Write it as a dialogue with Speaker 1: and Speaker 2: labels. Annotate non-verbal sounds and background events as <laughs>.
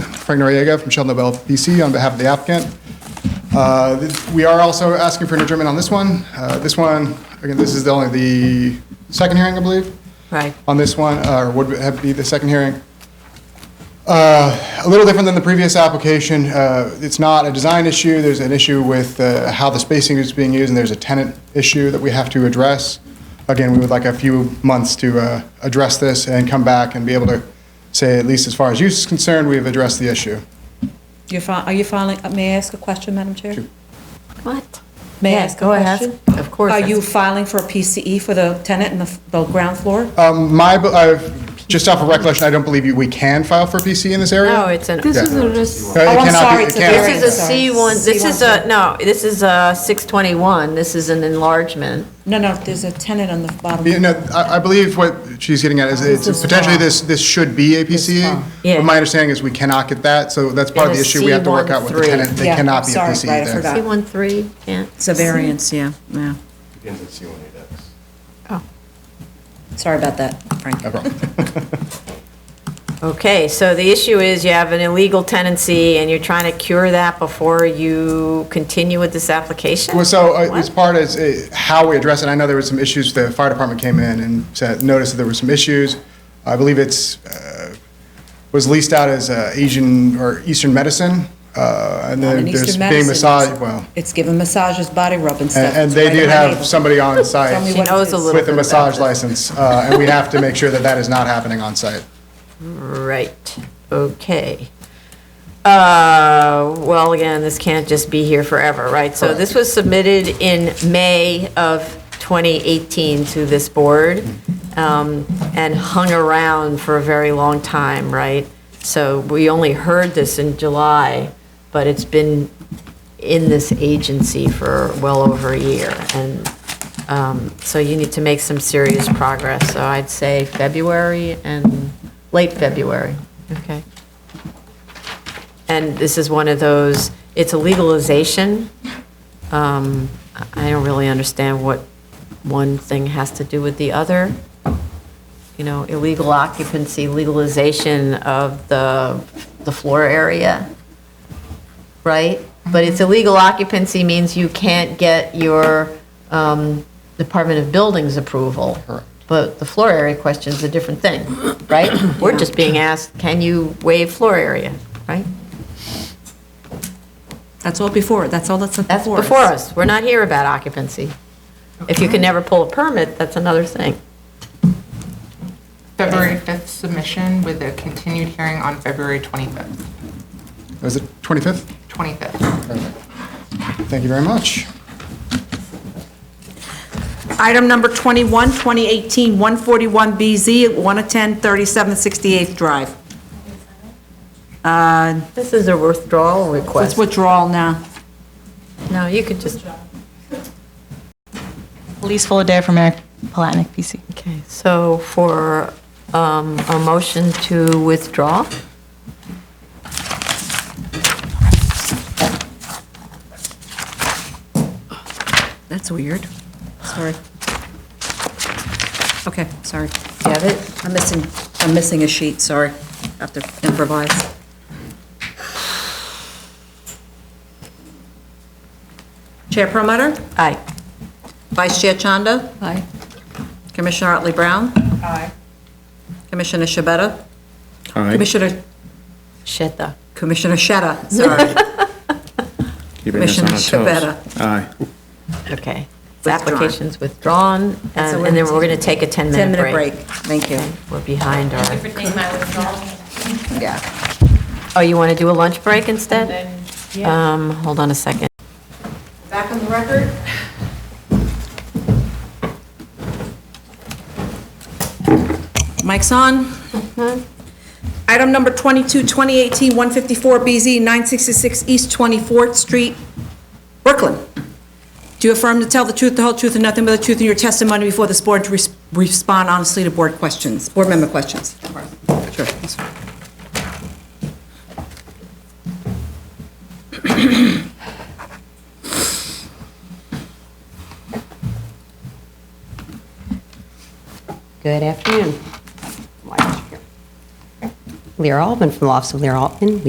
Speaker 1: Frank Noriega from Sheldon Nobel BC on behalf of the applicant. Uh, th- We are also asking for an adjournment on this one. Uh, This one, again, this is the only the second hearing, I believe,
Speaker 2: Right.
Speaker 1: on this one, uh, or would have be the second hearing. Uh, A little different than the previous application. Uh, It's not a design issue. There's an issue with uh, how the spacing is being used, and there's a tenant issue that we have to address. Again, we would like a few months to uh, address this and come back and be able to say, at least as far as use is concerned, we've addressed the issue.
Speaker 2: You're fi- are you filing, uh, may I ask a question, Madam Chair?
Speaker 3: What?
Speaker 2: May I
Speaker 3: Yeah,
Speaker 2: ask a
Speaker 3: go ahead.
Speaker 2: question?
Speaker 3: Of course,
Speaker 2: Are you
Speaker 3: that's-
Speaker 2: filing for a PCE for the tenant in the, f- the ground floor?
Speaker 1: Um, My, uh, just off of recollection, I don't believe you- we can file for PC in this area.
Speaker 3: No, it's an,
Speaker 4: This
Speaker 3: this
Speaker 1: Yeah.
Speaker 4: is a res-
Speaker 1: Uh, it
Speaker 2: Oh, I'm
Speaker 1: cannot be-
Speaker 2: sorry,
Speaker 1: it
Speaker 2: it's a
Speaker 1: cannot-
Speaker 2: variance.
Speaker 3: is a
Speaker 2: Sorry.
Speaker 3: C1, this is
Speaker 2: C1.
Speaker 3: a, no, this is a 621, this is an enlargement.
Speaker 2: No, no, there's a tenant on the bottom.
Speaker 1: You know, I, I believe what she's getting at is
Speaker 2: This
Speaker 1: it's
Speaker 2: is
Speaker 1: potentially
Speaker 2: fine.
Speaker 1: this, this should be a PCA.
Speaker 2: fine.
Speaker 3: Yeah.
Speaker 1: But my understanding is we cannot get that, so that's part of
Speaker 3: It
Speaker 1: the
Speaker 3: is
Speaker 1: issue we have to work out with the
Speaker 3: C13.
Speaker 1: tenant. They
Speaker 2: Yeah,
Speaker 1: cannot be a
Speaker 2: sorry, right, I
Speaker 1: PCA there.
Speaker 2: forgot.
Speaker 3: C13, yeah.
Speaker 4: it's a variance, yeah, yeah.
Speaker 5: begins with C180X.
Speaker 2: Sorry about that, Frank. <laughs>
Speaker 1: No problem.
Speaker 3: Okay, so the issue is you have an illegal tenancy and you're trying to cure that before you continue with this application?
Speaker 1: Well, so uh, as part as uh, how we address it, I know there was some issues, the fire department came in and said, noticed that there were some issues. I believe it's, uh, was leased out as uh, Asian or Eastern medicine, uh, and
Speaker 2: Not
Speaker 1: then
Speaker 2: an Eastern
Speaker 1: there's being
Speaker 2: medicine,
Speaker 1: massage,
Speaker 2: it's-
Speaker 1: well,
Speaker 2: It's giving massages, body rub and stuff.
Speaker 1: and and
Speaker 2: It's
Speaker 1: they
Speaker 2: right
Speaker 1: did
Speaker 2: on my
Speaker 1: have
Speaker 2: neighborhood. <laughs>
Speaker 1: somebody on site.
Speaker 2: me
Speaker 3: She
Speaker 2: what it
Speaker 3: knows
Speaker 2: is.
Speaker 3: a little
Speaker 1: with
Speaker 3: bit
Speaker 1: a
Speaker 3: about
Speaker 1: massage
Speaker 3: this.
Speaker 1: license, uh, and we have to make sure that that is not happening on site.
Speaker 3: Right, okay. Uh, Well, again, this can't just be here forever, right? So this was submitted in May of 2018 to this board um, and hung around for a very long time, right? So we only heard this in July, but it's been in this agency for well over a year. And um, so you need to make some serious progress. So I'd say February and late February. Okay. And this is one of those, it's a legalization. Um, I I don't really understand what one thing has to do with the other. You know, illegal occupancy, legalization of the, the floor area, right? But it's illegal occupancy means you can't get your um, Department of Buildings approval.
Speaker 1: Correct.
Speaker 3: But the floor area question is a different thing, right? We're just being asked, can you waive floor area, right?
Speaker 2: That's all before, that's all that's before
Speaker 3: That's before us. We're not here about occupancy. If you can never pull a permit, that's another thing.
Speaker 6: February 5th submission with a continued hearing on February 25th,
Speaker 1: Was it 25th?
Speaker 6: 25th.
Speaker 1: Thank you very much.
Speaker 4: Item number 21, 2018, 141BZ, 110 37th 68th Drive. Uh,
Speaker 3: This is a withdrawal
Speaker 4: It's
Speaker 3: request.
Speaker 4: withdrawal now.
Speaker 3: No, you could just,
Speaker 7: Elise Fullader from Eric Palatnick, PC.
Speaker 3: okay, so for um, a motion to withdraw?
Speaker 4: That's weird. Sorry. Okay, sorry.
Speaker 3: Do you have it?
Speaker 4: I'm missing, I'm missing a sheet, sorry. Have to improvise. Chair Promoter?
Speaker 3: Aye.
Speaker 4: Vice Chair Chanda?
Speaker 2: Aye.
Speaker 4: Commissioner Otley Brown? Aye. Commissioner Shabeta?
Speaker 8: Aye.
Speaker 4: Commissioner,
Speaker 3: Sheta.
Speaker 4: Commissioner Sheta, sorry. <laughs>
Speaker 8: Keeping us on our
Speaker 4: Commissioner
Speaker 8: toes. Aye.
Speaker 3: Okay. The
Speaker 4: Withdrawn.
Speaker 3: application's withdrawn,
Speaker 4: So
Speaker 3: and and
Speaker 4: we're
Speaker 3: then
Speaker 4: gonna
Speaker 3: we're going to take a 10-minute break.
Speaker 4: 10-minute break, thank you.
Speaker 3: We're behind our,
Speaker 4: Yeah.
Speaker 3: oh, you want to do a lunch break instead? Um, Hold on a second.
Speaker 4: Back on the record? Mic's on. Uh-huh. Item number 22, 2018-154BZ, 966 East 24th Street, Brooklyn. Do you affirm to tell the truth, the whole truth, and nothing but the truth in your testimony before this board to res- respond honestly to board questions, board member questions? Sure.
Speaker 9: Good afternoon. Lear Altman from the Office of Lear Altman.